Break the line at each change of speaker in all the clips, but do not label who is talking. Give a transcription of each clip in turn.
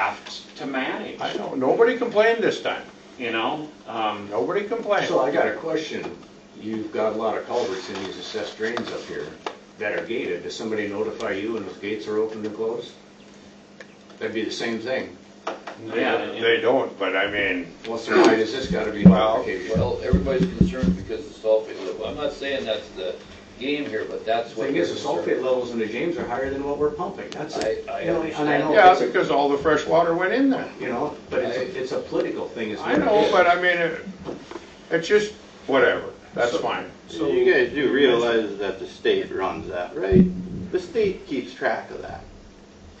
left to manage,
I know, nobody complained this time.
you know? Um,
Nobody complained.
So I got a question. You've got a lot of culverts in these assessed drains up here that are gated. Does somebody notify you when those gates are opened and closed? That'd be the same thing.
yeah, and-
They don't, but I mean,
What's the, why does this gotta be
Well,
notification?
Well, everybody's concerned because of sulfate level. I'm not saying that's the game here, but that's
The
what.
thing is, the
they're
sulfate levels in the James are higher than what we're pumping. That's it.
I- I
You know, And I
understand.
know,
yeah,
it's a-
because all the fresh water went in there.
you know, but it's, a- it's a political thing. it's
I
not-
know, but I mean, it- it's just, whatever, that's fine.
So you guys do realize that the state runs that, right? The state keeps track of that.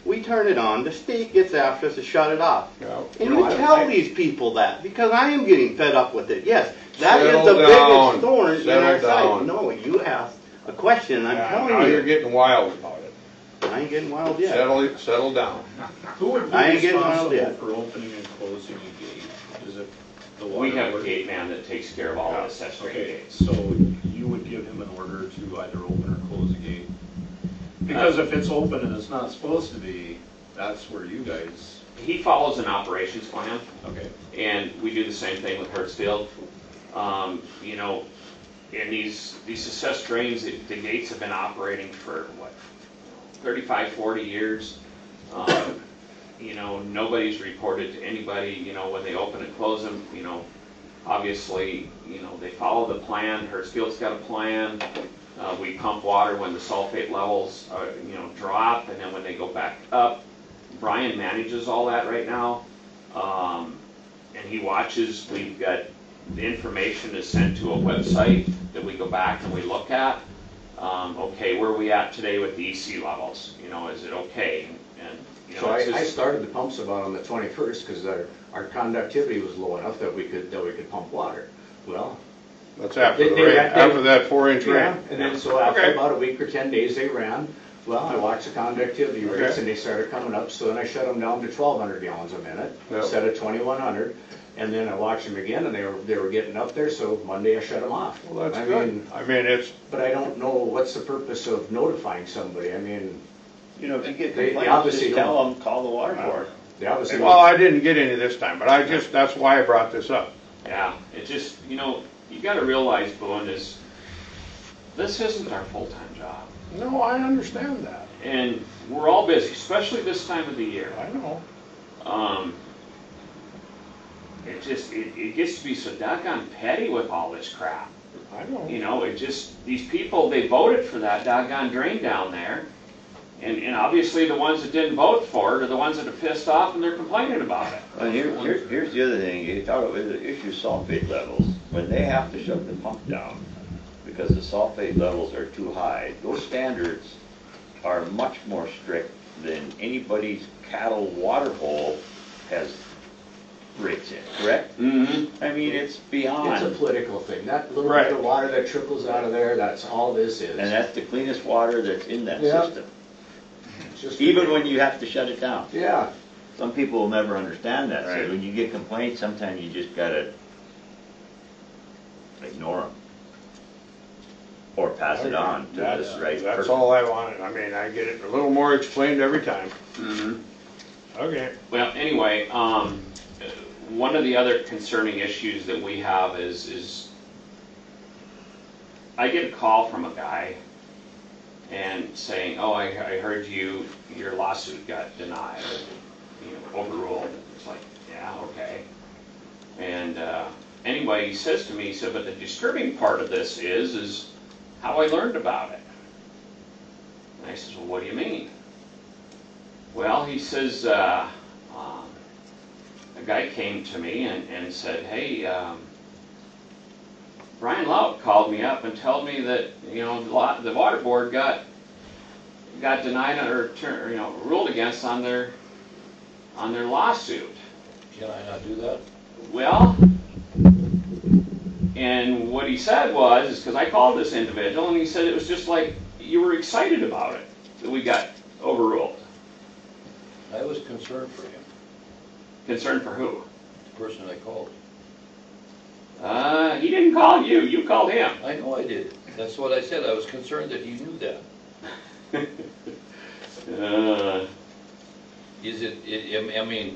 We turn it on, the state gets after us to shut it off.
Yeah.
And
No,
you
I don't
tell
think-
these people that, because I am getting fed up with it, yes. That is the
Settle down.
biggest thorn in our
Settle
side.
down.
No, you asked a question, and I'm
Now
telling
you're
you.
getting wild about it.
I ain't getting wild yet.
Settle, settle down.
Who would be
I ain't getting one of
responsible
them.
for opening and closing a gate? Is it the water?
we have a
board?
gate man that takes care of all the accessory
Okay,
gates.
so you would give him an order to either open or close a gate? Because if it's open and it's not supposed to be, that's where you guys,
He follows an operations plan,
okay.
and we do the same thing with Hertzfield. Um, you know, and these, these assessed drains, the the gates have been operating for, what, 35, 40 years. Um, You know, nobody's reported to anybody, you know, when they open and close them, you know, obviously, you know, they follow the plan, Hertzfield's got a plan. Uh, We pump water when the sulfate levels, uh, you know, drop, and then when they go back up. Brian manages all that right now. Um, and he watches, we've got, the information is sent to a website that we go back and we look at. Um, okay, where are we at today with the EC levels? You know, is it okay? And, you
So
know,
I,
it's
I
just,
started the pumps about on the twenty-first, because our, our conductivity was low enough that we could, that we could pump water. Well,
That's after
They-
the
they
rain,
ran- they-
after that four inch
Yeah,
rain.
and then so after
Okay.
about a week or ten days, they ran. Well, I watched the conductivity rates
Okay.
and they started coming up, so then I shut them down to twelve hundred gallons a minute
Yep.
instead of twenty-one hundred. And then I watched them again and they were, they were getting up there, so Monday I shut them off.
Well,
I
that's
mean,
good. I mean, it's,
But I don't know what's the purpose of notifying somebody. I mean,
You know, if you get
They- they obviously don't.
them, call the water board.
they obviously.
well, I didn't get any this time, but I just, that's why I brought this up.
yeah, it just, you know, you gotta realize, Boone, is this isn't our full-time job.
No, I understand that.
And we're all busy, especially this time of the year.
I know.
Um, it just, it, it gets to be so doggone petty with all this crap.
I know.
You know, it just, these people, they voted for that doggone drain down there. And, and obviously the ones that didn't vote for it are the ones that are pissed off and they're complaining about it.
And here, here, here's the other thing, you talk about the issue sulfate levels, when they have to shut the pump down, because the sulfate levels are too high, those standards are much more strict than anybody's cattle water hole has rates in, correct?
Mm-hmm.
I mean, it's
It's a
beyond,
political thing. That little
Right.
bit of water that trickles out of there, that's all this is.
and that's the cleanest water that's in that
Yeah.
system,
It's just-
even when you have to shut it down.
Yeah,
Some people will never understand that,
Right.
so when you get complaints, sometimes you just gotta ignore them. Or pass it on to
That's-
the right
uh, That's
person.
all I wanted. I mean, I get it a little more explained every time.
Mm-hmm.
Okay.
Well, anyway, um, uh, one of the other concerning issues that we have is, is I get a call from a guy and saying, oh, I, I heard you, your lawsuit got denied, or, you know, overruled. It's like, yeah, okay. And, uh, anyway, he says to me, he said, but the disturbing part of this is, is how I learned about it. And I says, well, what do you mean? Well, he says, uh, um, a guy came to me and, and said, hey, um, Brian Laut called me up and told me that, you know, the lot, the water board got, got denied or, tur- you know, ruled against on their, on their lawsuit.
Can I not do that?
Well, and what he said was, is because I called this individual and he said it was just like, you were excited about it, that we got overruled.
I was concerned for him,
Concerned for who?
the person I called.
Uh, he didn't call you, you called him.
I know I did. That's what I said. I was concerned that he knew that.
Uh,
Is it, it- I mean,